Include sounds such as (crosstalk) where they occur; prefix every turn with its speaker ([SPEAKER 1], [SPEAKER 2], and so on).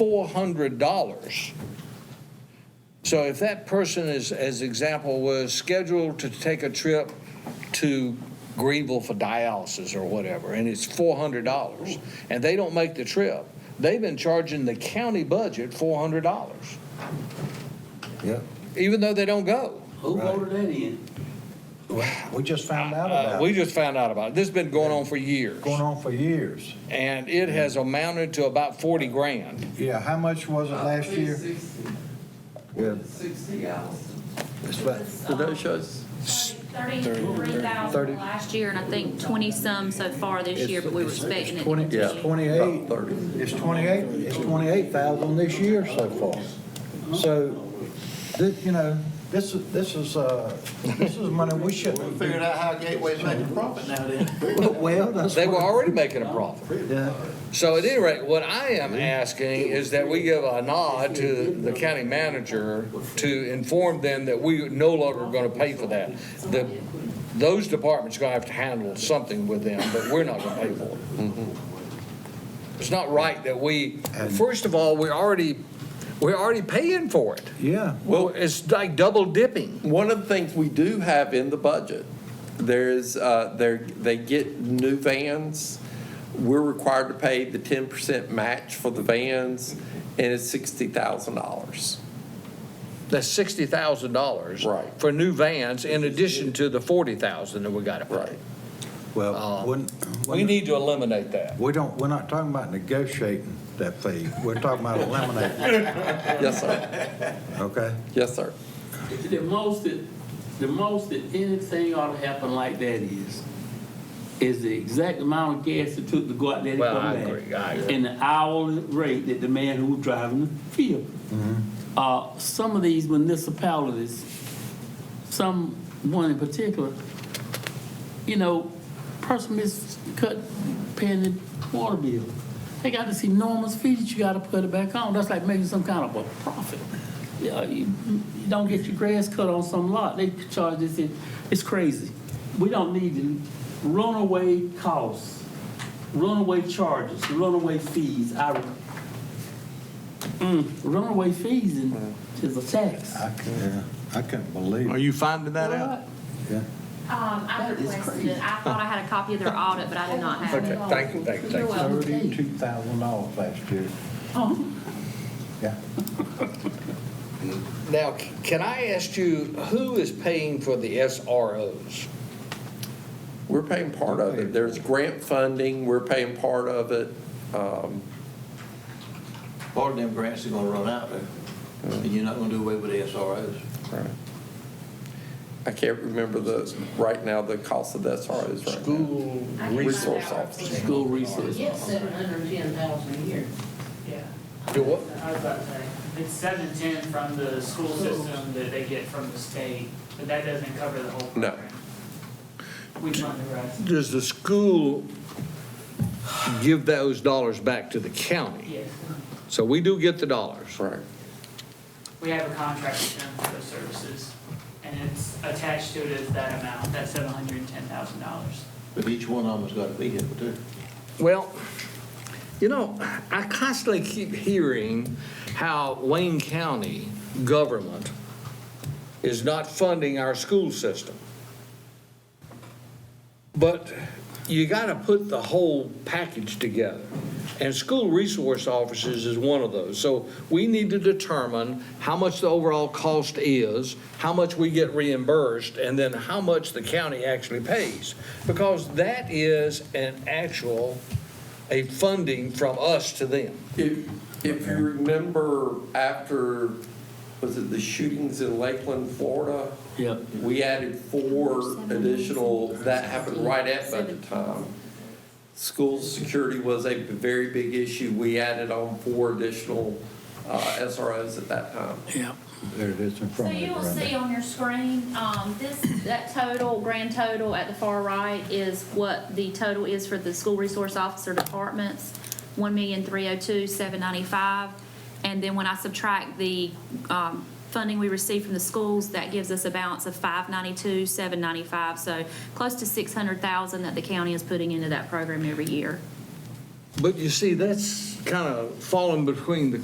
[SPEAKER 1] $400. So if that person is, as example, was scheduled to take a trip to Greenville for dialysis or whatever, and it's $400, and they don't make the trip, they've been charging the county budget $400,
[SPEAKER 2] Yeah,
[SPEAKER 1] even though they don't go.
[SPEAKER 3] Who voted that in?
[SPEAKER 2] we just found out
[SPEAKER 1] Uh,
[SPEAKER 2] about
[SPEAKER 1] We
[SPEAKER 2] it,
[SPEAKER 1] just found out about it. This has been going on for years,
[SPEAKER 2] going on for years.
[SPEAKER 1] and it has amounted to about 40 grand.
[SPEAKER 2] Yeah, how much was it last
[SPEAKER 3] Uh,
[SPEAKER 2] year? Yeah,
[SPEAKER 3] Sixty thousand.
[SPEAKER 2] it's about,
[SPEAKER 4] Did those shows?
[SPEAKER 5] Thirty-three
[SPEAKER 2] Thirty.
[SPEAKER 5] thousand last year, and I think twenty-some so far this year, but we were expecting it. um,
[SPEAKER 2] twenty,
[SPEAKER 4] Yeah.
[SPEAKER 2] it's twenty-eight, it's twenty-eight, it's twenty-eight thousand this year so far. So, this, you know, this, is this is, uh, this is money we shouldn't,
[SPEAKER 3] Figured out how Gateway's making profit now then.
[SPEAKER 2] (laughs) well, that's.
[SPEAKER 1] They were
[SPEAKER 2] what-
[SPEAKER 1] already making a profit.
[SPEAKER 2] Yeah,
[SPEAKER 1] So at any rate, what I am asking is that we give a nod to the county manager to inform them that we no longer are gonna pay for that. That those departments are gonna have to handle something with them, but we're not gonna pay for it.
[SPEAKER 4] Mm-hmm.
[SPEAKER 1] It's not right that we, first of all, we're already, we're already paying for it.
[SPEAKER 2] yeah,
[SPEAKER 1] Well, it's like double dipping.
[SPEAKER 4] One of the things we do have in the budget, there is, uh, there, they get new vans. We're required to pay the ten percent match for the vans, and it's sixty thousand dollars.
[SPEAKER 1] That's sixty thousand dollars.
[SPEAKER 4] Right.
[SPEAKER 1] For new vans in addition to the forty thousand that we gotta pay.
[SPEAKER 4] Right.
[SPEAKER 2] well, when,
[SPEAKER 1] We need to eliminate that.
[SPEAKER 2] we don't, we're not talking about negotiating that fee, we're talking about eliminating,
[SPEAKER 4] Yes, sir.
[SPEAKER 2] okay?
[SPEAKER 4] Yes, sir.
[SPEAKER 3] The most that, the most that anything ought to happen like that is, is the exact amount of gas it took to go out there and
[SPEAKER 1] Well,
[SPEAKER 3] come
[SPEAKER 1] I
[SPEAKER 3] back.
[SPEAKER 1] agree, I agree.
[SPEAKER 3] And the hourly rate that the man who was driving the field. Uh, some of these municipalities, some, one in particular, you know, person is cut, paying the water bill. They got this enormous fee that you gotta put it back on. That's like making some kind of a profit. Yeah, you, you don't get your grass cut on some lot, they charge this, in. it's crazy. We don't need the runaway costs, runaway charges, runaway fees. I, mm, runaway fees and- is a tax.
[SPEAKER 2] I couldn't, I couldn't believe
[SPEAKER 6] Are
[SPEAKER 2] it,
[SPEAKER 6] you finding that out?
[SPEAKER 2] yeah.
[SPEAKER 5] Um, I
[SPEAKER 3] That is
[SPEAKER 5] requested
[SPEAKER 3] crazy.
[SPEAKER 5] it. I thought I had a copy of their audit, but I did not have it.
[SPEAKER 1] Okay, thank you, thank you,
[SPEAKER 5] You're
[SPEAKER 1] thank you.
[SPEAKER 5] welcome.
[SPEAKER 2] Thirty-two thousand dollars last year,
[SPEAKER 3] Oh.
[SPEAKER 2] yeah.
[SPEAKER 1] Now, c- can I ask you, who is paying for the SROs?
[SPEAKER 4] We're paying part of it. There's grant funding, we're paying part of it. Um,
[SPEAKER 7] Part of them grants are gonna run out there, and you're not gonna do away with the SROs.
[SPEAKER 4] I can't remember the, right now, the cost of that SROs right now.
[SPEAKER 1] School
[SPEAKER 5] I can find
[SPEAKER 4] Resource
[SPEAKER 5] out.
[SPEAKER 4] officer.
[SPEAKER 3] School resource.
[SPEAKER 8] Get seven hundred and ten thousand a year.
[SPEAKER 9] Yeah,
[SPEAKER 1] Do what?
[SPEAKER 9] I was about to say, it's seven ten from the school system that they get from the state, but that doesn't cover the whole
[SPEAKER 4] No.
[SPEAKER 9] program. We fund the rest,
[SPEAKER 1] Does the school give those dollars back to the county?
[SPEAKER 9] yes,
[SPEAKER 1] So we do get the dollars.
[SPEAKER 4] Right.
[SPEAKER 9] we have a contract with them for those services, and it's attached to it is that amount, that seven hundred and ten thousand dollars.
[SPEAKER 7] But each one of them's got a vehicle too.
[SPEAKER 1] Well, you know, I constantly keep hearing how Wayne County government is not funding our school system. But you gotta put the whole package together. And school resource officers is one of those. So we need to determine how much the overall cost is, how much we get reimbursed, and then how much the county actually pays. Because that is an actual, a funding from us to them.
[SPEAKER 4] If, if you remember after, was it the shootings in Lakeland, Florida?
[SPEAKER 3] Yep.
[SPEAKER 4] We added four additional, that happened right at budget time. School security was a very big issue. We added on four additional uh, SROs at that time.
[SPEAKER 2] There it is in
[SPEAKER 5] So
[SPEAKER 2] front of
[SPEAKER 5] you
[SPEAKER 2] you,
[SPEAKER 5] will see
[SPEAKER 2] Brenda.
[SPEAKER 5] on your screen, um, this, that total, grand total at the far right is what the total is for the school resource officer departments, one million, three oh two, seven ninety-five. And then when I subtract the, um, funding we receive from the schools, that gives us a balance of five ninety-two, seven ninety-five. So close to six hundred thousand that the county is putting into that program every year.
[SPEAKER 1] But you see, that's kind of falling between the